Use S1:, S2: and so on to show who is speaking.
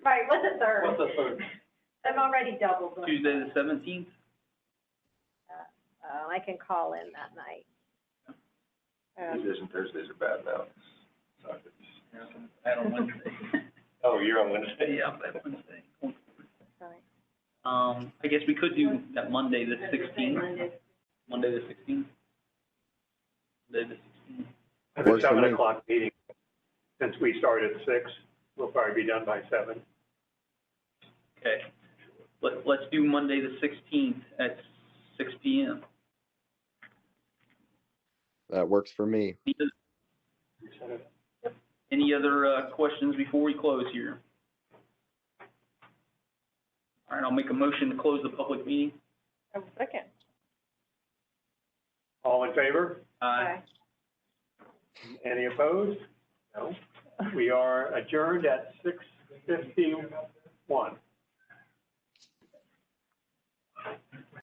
S1: Right, what's the third?
S2: What's the third?
S1: I'm already double booked.
S3: Tuesday the seventeenth?
S1: Uh, I can call in that night. Um,
S4: Tuesdays and Thursdays are bad now. Suck it.
S3: I don't Wednesday.
S4: Oh, you're on Wednesday?
S3: Yeah, I'm at Wednesday.
S1: Oh, sorry.
S3: Um, I guess we could do that Monday the sixteenth,
S1: Monday.
S3: Monday the sixteenth. Monday the sixteenth.
S5: It's a
S6: Works for
S5: seven
S6: me.
S5: o'clock meeting. Since we start at six, we'll probably be done by seven.
S3: Okay. Let, let's do Monday the sixteenth at six P M.
S6: That works for me.
S3: Any other, uh, questions before we close here? All right, I'll make a motion to close the public meeting.
S1: Oh, second.
S5: All in favor?
S3: Uh,
S5: Any opposed? No. We are adjourned at six fifty-one.